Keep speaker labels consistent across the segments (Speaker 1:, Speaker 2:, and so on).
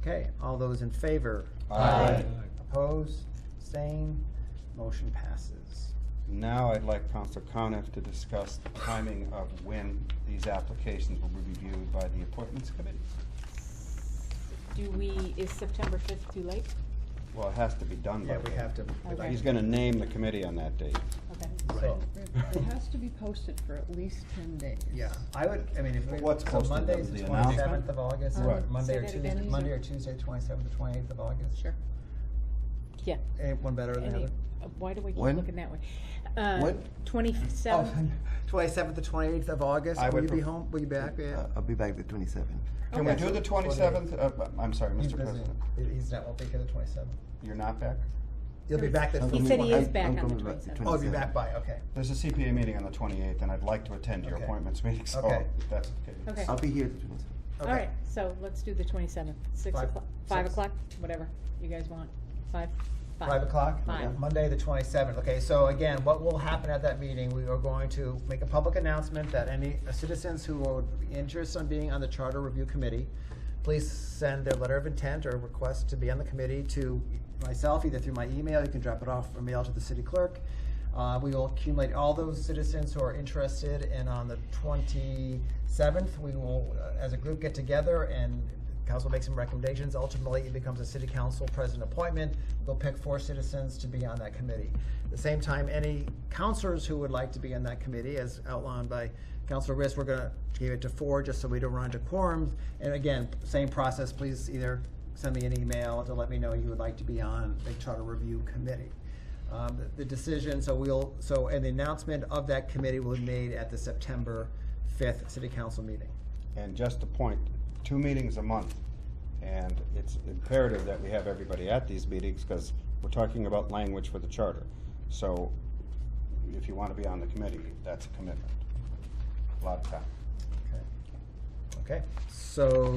Speaker 1: Okay, all those in favor?
Speaker 2: Aye.
Speaker 1: Opposed, abstained, motion passes.
Speaker 2: Now I'd like Council Coniff to discuss the timing of when these applications will be reviewed by the appointments committee.
Speaker 3: Do we, is September fifth too late?
Speaker 2: Well, it has to be done by
Speaker 1: Yeah, we
Speaker 2: then.
Speaker 1: have to.
Speaker 3: Okay.
Speaker 2: He's gonna name the committee on that date.
Speaker 3: Okay.
Speaker 1: So,
Speaker 4: It it has to be posted for at least ten days.
Speaker 1: yeah, I would, I mean, if we,
Speaker 2: What's
Speaker 1: so
Speaker 2: posted,
Speaker 1: Monday's
Speaker 2: the
Speaker 1: the
Speaker 2: announcement?
Speaker 1: twenty-seventh of August,
Speaker 3: Um,
Speaker 1: or
Speaker 2: Right.
Speaker 1: Monday
Speaker 3: say
Speaker 1: or
Speaker 3: that
Speaker 1: Tuesday,
Speaker 3: again,
Speaker 1: Monday or Tuesday, twenty-seventh to twenty-eighth of August?
Speaker 4: Sure.
Speaker 3: Yeah.
Speaker 1: Eh, One better than the
Speaker 3: Any-
Speaker 1: other.
Speaker 3: uh, Why do we keep
Speaker 2: When?
Speaker 3: looking that way? Uh,
Speaker 5: When?
Speaker 1: Oh,
Speaker 3: Twenty-seven.
Speaker 1: Twenty-seventh to twenty-eighth of August,
Speaker 2: I
Speaker 1: will
Speaker 2: would
Speaker 1: you be
Speaker 2: pref-
Speaker 1: home, will you be back, yeah?
Speaker 5: Uh, I'll be back the 27th.
Speaker 2: Can we
Speaker 1: Okay.
Speaker 2: do the twenty-seventh? Uh, I'm sorry,
Speaker 1: He's
Speaker 2: Mr.
Speaker 1: busy.
Speaker 2: President,
Speaker 1: He- He's not, won't be here the twenty-seventh.
Speaker 2: you're not back?
Speaker 1: He'll be back the.
Speaker 5: I'm
Speaker 3: He
Speaker 5: coming
Speaker 3: said he
Speaker 5: back-
Speaker 3: is back
Speaker 5: I'm
Speaker 3: on the
Speaker 5: coming back
Speaker 3: 27th.
Speaker 1: Oh, he'll be back by, okay.
Speaker 2: There's a CPA meeting on the twenty-eighth, and I'd like to attend your
Speaker 1: Okay.
Speaker 2: appointments meeting, so
Speaker 1: Okay.
Speaker 2: if that's okay.
Speaker 3: Okay,
Speaker 5: I'll
Speaker 3: all
Speaker 5: be here the 27th.
Speaker 1: Okay.
Speaker 3: right, so let's do the twenty-seventh, six
Speaker 1: Five-
Speaker 3: o'clock, five
Speaker 1: six.
Speaker 3: o'clock, whatever you guys want, five, five.
Speaker 1: Five o'clock?
Speaker 3: Five.
Speaker 1: Monday, the twenty-seventh. Okay, so again, what will happen at that meeting, we are going to make a public announcement that any uh, citizens who are interested in being on the charter review committee, please send their letter of intent or request to be on the committee to myself, either through my email, you can drop it off or mail to the city clerk. Uh, we will accumulate all those citizens who are interested, and on the twenty-seventh, we will, uh, as a group, get together and Council makes some recommendations, ultimately it becomes a city council president appointment. We'll pick four citizens to be on that committee. At the same time, any counselors who would like to be on that committee, as outlined by Councilor Riss, we're gonna give it to four, just so we don't run into quorums. And again, same process, please either send me an email to let me know you would like to be on the charter review committee. Um, the- The decision, so we'll, so, and the announcement of that committee will be made at the September fifth city council meeting.
Speaker 2: And just a point, two meetings a month, and it's imperative that we have everybody at these meetings, because we're talking about language for the charter. So if you want to be on the committee, that's a commitment. A lot of time.
Speaker 1: Okay. Okay, so,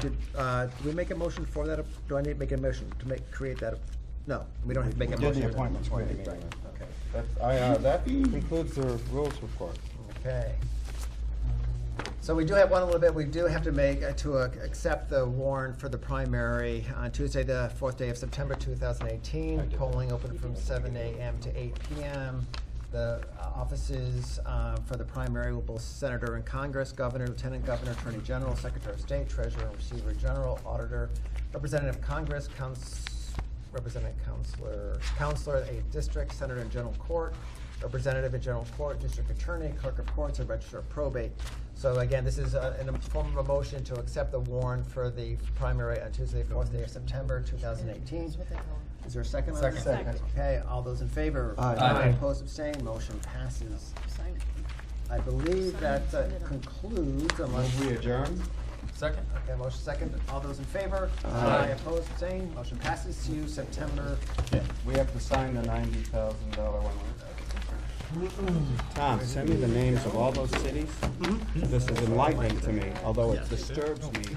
Speaker 1: did, uh, did we make a motion for that? Do I need to make a motion to make, create that? No, we don't have to make
Speaker 2: We
Speaker 1: a
Speaker 2: did
Speaker 1: motion.
Speaker 2: the appointments
Speaker 1: Right,
Speaker 2: committee
Speaker 1: right,
Speaker 2: meeting.
Speaker 1: Okay,
Speaker 2: That's, I, uh, that concludes the rules report.
Speaker 1: okay. So we do have one little bit, we do have to make, uh, to uh, accept the warrant for the primary on Tuesday, the fourth day of September two thousand
Speaker 2: I
Speaker 1: eighteen.
Speaker 2: did that.
Speaker 1: Polling open from seven AM to eight PM. The uh, offices uh, for the primary will be Senator in Congress, Governor, Lieutenant Governor, Attorney General, Secretary of State, Treasurer, Receiver General, Auditor, Representative of Congress, Couns- Representative Counselor, Counselor at Eighth District, Senator in General Court, Representative in General Court, District Attorney, Clerk of Courts, and Register of Probate. So again, this is a- in a form of a motion to accept the warrant for the primary on Tuesday, fourth day of September, two thousand eighteen. Is there a second on this?
Speaker 3: Second. Second.
Speaker 1: Okay, all those in favor?
Speaker 5: Aye.
Speaker 1: Aye. Opposed, abstained, motion passes.
Speaker 4: Sign it.
Speaker 1: I believe that uh, concludes unless.
Speaker 2: Move we adjourn?
Speaker 6: Second?
Speaker 1: Okay, motion second, all those in favor?
Speaker 5: Aye.
Speaker 1: Opposed, abstained, motion passes, see you September
Speaker 2: We have to sign the ninety thousand dollar one. Tom, send me the Mm-hmm. names of all those cities. This is enlightening to me, although it disturbs me